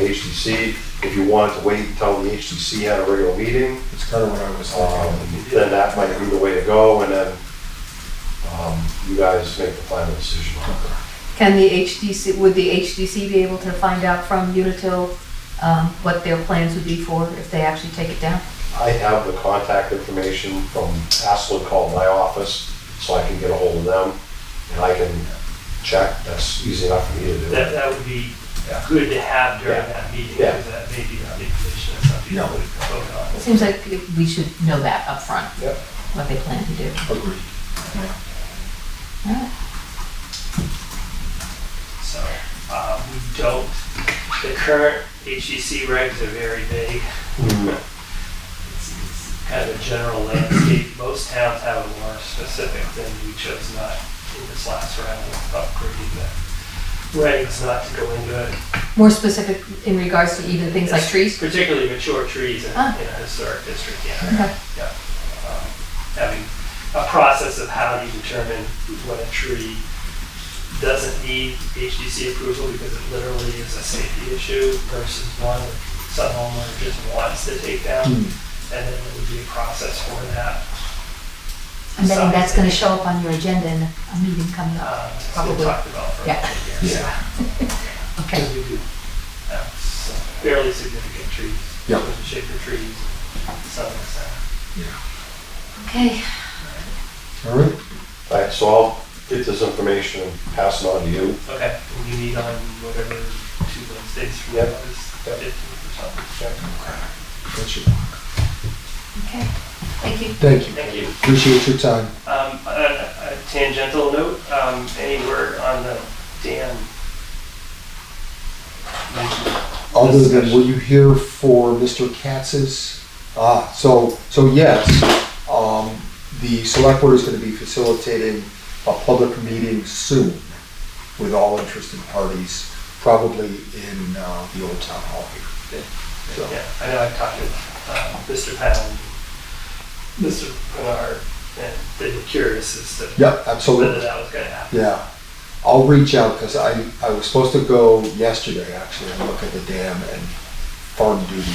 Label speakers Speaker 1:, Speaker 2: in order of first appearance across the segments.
Speaker 1: HDC. If you wanted to wait until the HDC had a regular meeting,
Speaker 2: It's kind of what I was
Speaker 1: um,
Speaker 2: thinking.
Speaker 1: then that might be the way to go, and then um, you guys make the final decision on it.
Speaker 3: Can the HDC, would the HDC be able to find out from Unitil um, what their plans would be for if they actually take it down?
Speaker 1: I have the contact information from Haslett called my office, so I can get a hold of them, and I can check, that's easy enough for me to do.
Speaker 4: That, that would be good to have during that meeting,
Speaker 1: Yeah.
Speaker 4: because that may be a big issue, that's something
Speaker 2: No.
Speaker 4: that would vote on.
Speaker 3: It seems like we should know that upfront.
Speaker 1: Yep.
Speaker 3: What they plan to do.
Speaker 2: Agreed.
Speaker 3: Alright.
Speaker 4: So, uh, we don't, the current HGC regs are very vague.
Speaker 1: Mm,
Speaker 4: It's it's kind of a general landscape. Most towns have it more specific than we chose not in this last round of upgrading the regs, not to go into it.
Speaker 3: More specific in regards to even things like trees?
Speaker 4: Particularly mature trees in in
Speaker 3: Ah.
Speaker 4: a historic district, yeah.
Speaker 3: Okay.
Speaker 4: Yeah. Um, Having a process of how you determine when a tree doesn't need HDC approval because it literally is a safety issue versus one that some homeowner just wants to take down.
Speaker 2: Hmm.
Speaker 4: And then there would be a process for that.
Speaker 3: I'm betting that's gonna show up on your agenda in a meeting coming up.
Speaker 4: Uh, it's been
Speaker 3: Probably.
Speaker 4: talked about for a
Speaker 3: Yeah.
Speaker 4: couple of years.
Speaker 2: Yeah.
Speaker 3: Okay.
Speaker 4: We do have some fairly significant trees.
Speaker 2: Yeah.
Speaker 4: Shaker trees, some, some.
Speaker 3: Okay.
Speaker 2: All right.
Speaker 1: All right, so I'll get this information and pass it on to you.
Speaker 4: Okay, and you meet on whatever two Wednesdays from
Speaker 1: Yep.
Speaker 4: now is
Speaker 1: Yep.
Speaker 4: fifteenth or something.
Speaker 2: That's your-
Speaker 3: Okay. Thank you.
Speaker 2: Thank you.
Speaker 4: Thank you.
Speaker 2: Appreciate your time.
Speaker 4: Um, a, a tangential note, um, any word on the dam?
Speaker 2: Other than, were you here for Mr. Katz's? Ah, so, so yes, um, the select board is gonna be facilitating a public meeting soon with all interested parties, probably in, uh, the old town hall here. So,
Speaker 4: Yeah, I know I've talked to, uh, Mr. Pound, Mr. Bernard, and they were curious as to
Speaker 2: yeah,
Speaker 4: whether
Speaker 2: absolutely.
Speaker 4: that was gonna happen.
Speaker 2: Yeah, I'll reach out because I, I was supposed to go yesterday actually and look at the dam and farm duty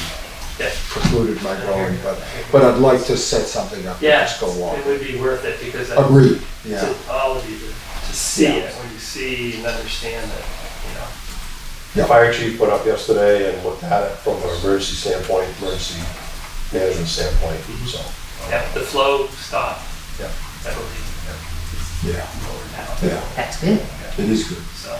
Speaker 4: Yeah.
Speaker 2: precluded my going, but, but I'd like to set something up and
Speaker 4: Yeah,
Speaker 2: just go along.
Speaker 4: it would be worth it because I,
Speaker 2: Agreed, yeah,
Speaker 4: to all of you to, to see
Speaker 2: Yeah.
Speaker 4: it, when you see and understand that, you know,
Speaker 1: The fire chief put up yesterday and looked at it from an emergency standpoint, emergency management standpoint,
Speaker 5: Mhm.
Speaker 1: so.
Speaker 4: Yeah, the flow stopped.
Speaker 1: Yeah.
Speaker 4: I believe
Speaker 2: yeah,
Speaker 4: lower now.
Speaker 2: yeah,
Speaker 3: That's good.
Speaker 2: it is good.
Speaker 4: So,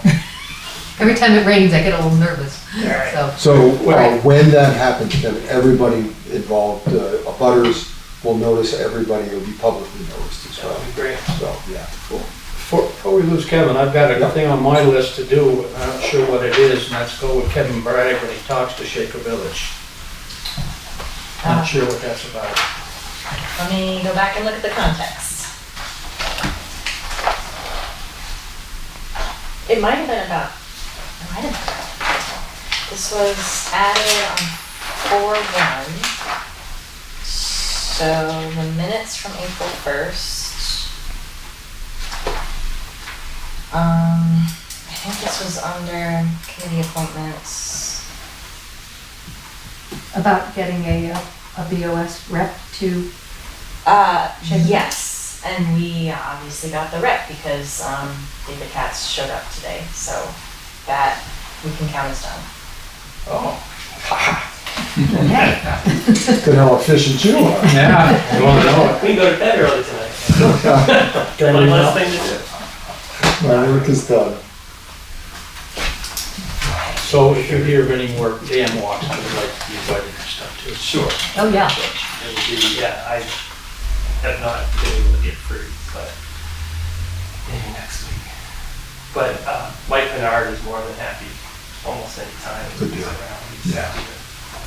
Speaker 3: Every time it rains, I get a little nervous.
Speaker 4: Alright.
Speaker 3: So,
Speaker 2: So uh,
Speaker 3: Right.
Speaker 2: when that happens, then everybody involved, uh, abutters will notice, everybody will be publicly noticed as
Speaker 4: that
Speaker 2: well,
Speaker 4: would be great.
Speaker 2: so, yeah.
Speaker 5: Before before Oh, we lose Kevin, I've got a thing on my list to do, I'm not sure what it is, and that's go with Kevin Bragg when he talks to Shaker Village.
Speaker 3: Ah.
Speaker 5: Not sure what that's about.
Speaker 6: Let me go back and look at the context. It might have been about, it might have been about. This was added on four one. So the minutes from April first. Um, I think this was under committee appointments.
Speaker 3: about getting a, uh, a BOS rep to
Speaker 6: Uh,
Speaker 3: Shaker?
Speaker 6: yes, and we uh, obviously got the rep because um, David Katz showed up today, so that we can count as done.
Speaker 2: Oh,
Speaker 3: Hey,
Speaker 2: Good how efficient you are.
Speaker 5: Yeah, you wanna know
Speaker 4: We can go to bed early tonight.
Speaker 5: it?
Speaker 4: One less thing to do.
Speaker 2: My work is done.
Speaker 5: So if you hear of any more dam walks, I would like to be invited and stuff too.
Speaker 4: Sure.
Speaker 3: Oh, yeah.
Speaker 4: It would be, yeah, I have not been able to get free, but maybe next week. But uh, Mike Bernard is more than happy almost any time
Speaker 2: Good
Speaker 4: he's
Speaker 2: deal.
Speaker 4: around. He's
Speaker 2: Yeah.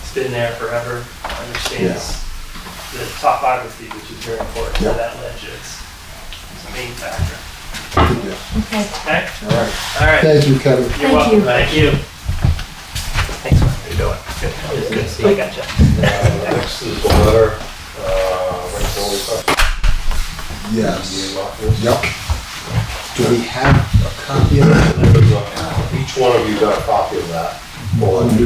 Speaker 4: He's been there forever, understands the topography, which is very important to
Speaker 2: Yeah.
Speaker 4: that ledge. It's it's a main factor.
Speaker 2: Good deal.
Speaker 3: Okay.
Speaker 4: Okay?
Speaker 2: All right,
Speaker 4: All right.
Speaker 2: thank you, Kevin.
Speaker 3: Thank
Speaker 4: You're welcome.
Speaker 3: you.
Speaker 4: Thank you. Thanks, man. How you doing? Good. Good to see you. I gotcha.
Speaker 1: Uh, Next is the letter, uh, right before we start.
Speaker 2: Yes.
Speaker 1: the office.
Speaker 2: Yep. Do we have a copy of it?
Speaker 1: Each one of you got a copy of that.
Speaker 2: Well, I'm-